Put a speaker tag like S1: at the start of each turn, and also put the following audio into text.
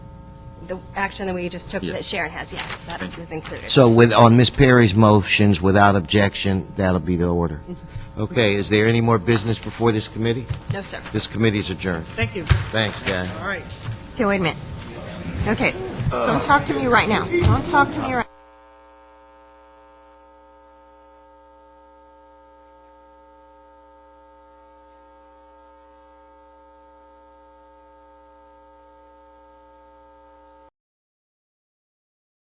S1: the action that we just took
S2: Yes.
S1: that Sharon has, yes, that
S2: Thank you.
S1: is included.
S3: So with, on Ms. Perry's motions, without objection, that'll be the order.
S4: Mm-hmm.
S3: Okay, is there any more business before this committee?
S1: No, sir.
S3: This committee's adjourned.
S4: Thank you.
S3: Thanks, guys.
S4: All right.
S5: Okay, wait a minute. Okay, don't talk to me right now. Don't talk to me right...